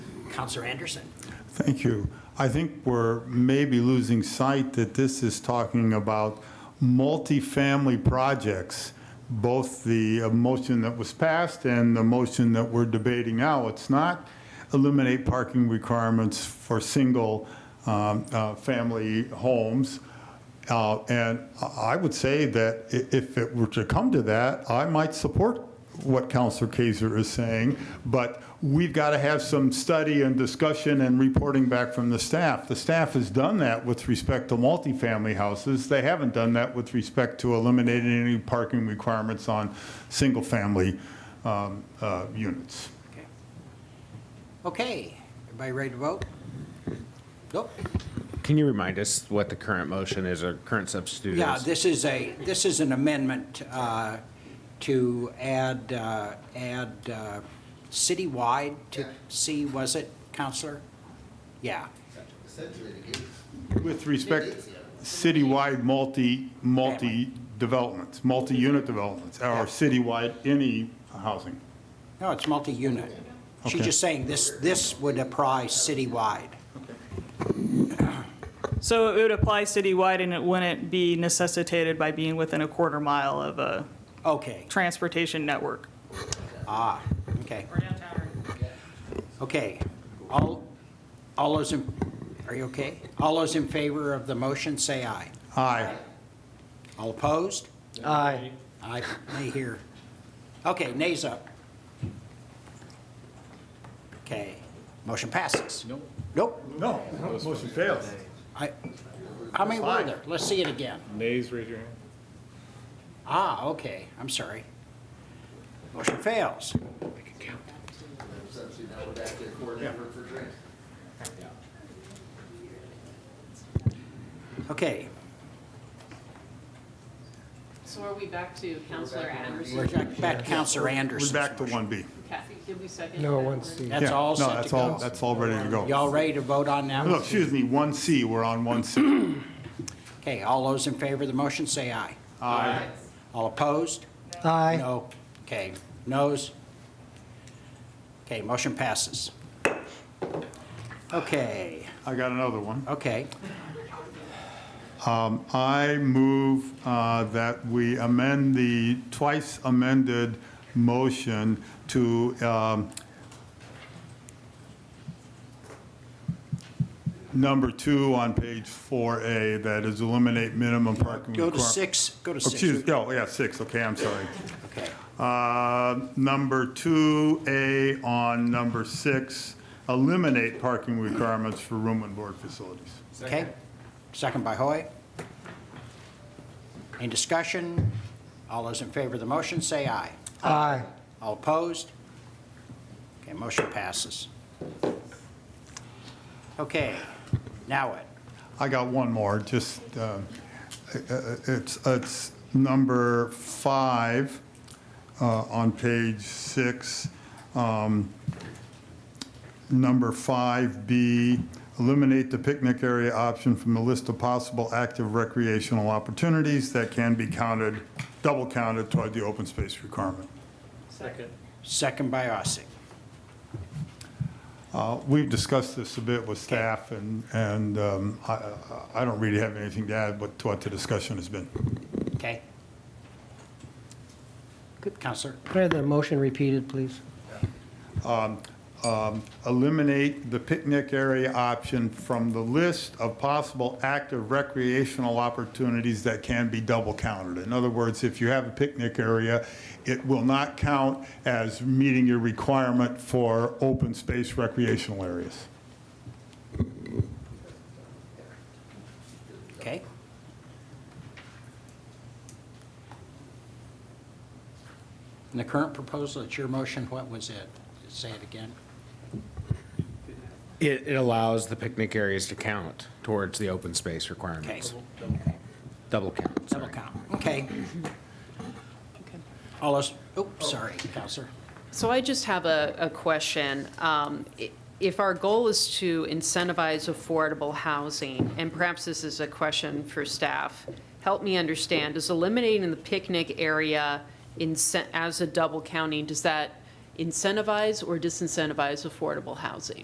Counselor Anderson. Thank you. I think we're maybe losing sight that this is talking about multifamily projects, both the uh, motion that was passed and the motion that we're debating now. It's not eliminate parking requirements for single-family homes. Uh, And I I would say that i- if it were to come to that, I might support what Counselor Kaiser is saying, but we've got to have some study and discussion and reporting back from the staff. The staff has done that with respect to multifamily houses. They haven't done that with respect to eliminating any parking requirements on single-family um, uh, units. Okay. Okay, everybody ready to vote? Nope. Can you remind us what the current motion is or current substitute is? Yeah, this is a, this is an amendment uh, to add, uh, add uh, citywide to C, was it, Counselor? Yeah, With respect, citywide multi, multi-developments, multi-unit developments, or citywide any housing. no, it's multi-unit. She's Okay. just saying this, this would apply citywide. So it would apply citywide and it wouldn't be necessitated by being within a quarter mile of a Okay, transportation network. ah, okay. Okay, all, all those, in are you okay? All those in favor of the motion, say aye. Aye. All opposed? Aye. Aye, nay here. Okay, nays up. Okay, motion passes. Nope. Nope. No, motion fails. I, how many were there? Let's see it again. Nays, raise your hand. Ah, okay, I'm sorry. Motion fails. Okay, So are we back to Counselor Anderson? we're back to Counselor We're Anderson. back to 1B. Kathy, did we second? No, that one one? C. That's Yeah, all no, set to that's all- go. That's all ready to go. Y'all ready to vote on now? No, excuse me, 1C, we're on 1C. Okay, all those in favor of the motion, say aye. Aye. All opposed? Aye. No. Okay, noes? Okay, motion passes. Okay, I got another one. okay, I move uh, that we amend the twice amended motion to um, number two on page 4A, that is eliminate minimum parking requirement. go to six, go to Excuse, six. oh, yeah, six, okay, I'm sorry. Okay, Uh, Number two, A on number six, eliminate parking requirements for room and board facilities. okay, second by Hoy. Any discussion? All those in favor of the motion, say aye. Aye. All opposed? Okay, motion passes. Okay, now what? I got one more, just, uh, it's, it's number five uh, on page six. um, Number 5B, eliminate the picnic area option from the list of possible active recreational opportunities that can be counted, double counted toward the open space requirement. Second by Ossing. Uh, We've discussed this a bit with staff, and, and um, I, I- I don't really have anything to add what- to what the discussion has been. Okay. Good, Counselor. Could I have the motion repeated, please? eliminate the picnic area option from the list of possible active recreational opportunities that can be double counted. In other words, if you have a picnic area, it will not count as meeting your requirement for open space recreational areas. Okay. In the current proposal, it's your motion, what was it? Say it again. It, it allows the picnic areas to count towards the open space Okay, requirements. Double count, double sorry. count, okay. All those, oops, sorry, Counselor. So I just have a, a question. Um, i- If our goal is to incentivize affordable housing, and perhaps this is a question for staff, help me understand, is eliminating the picnic area incen- as a double counting, does that incentivize or disincentivize affordable housing?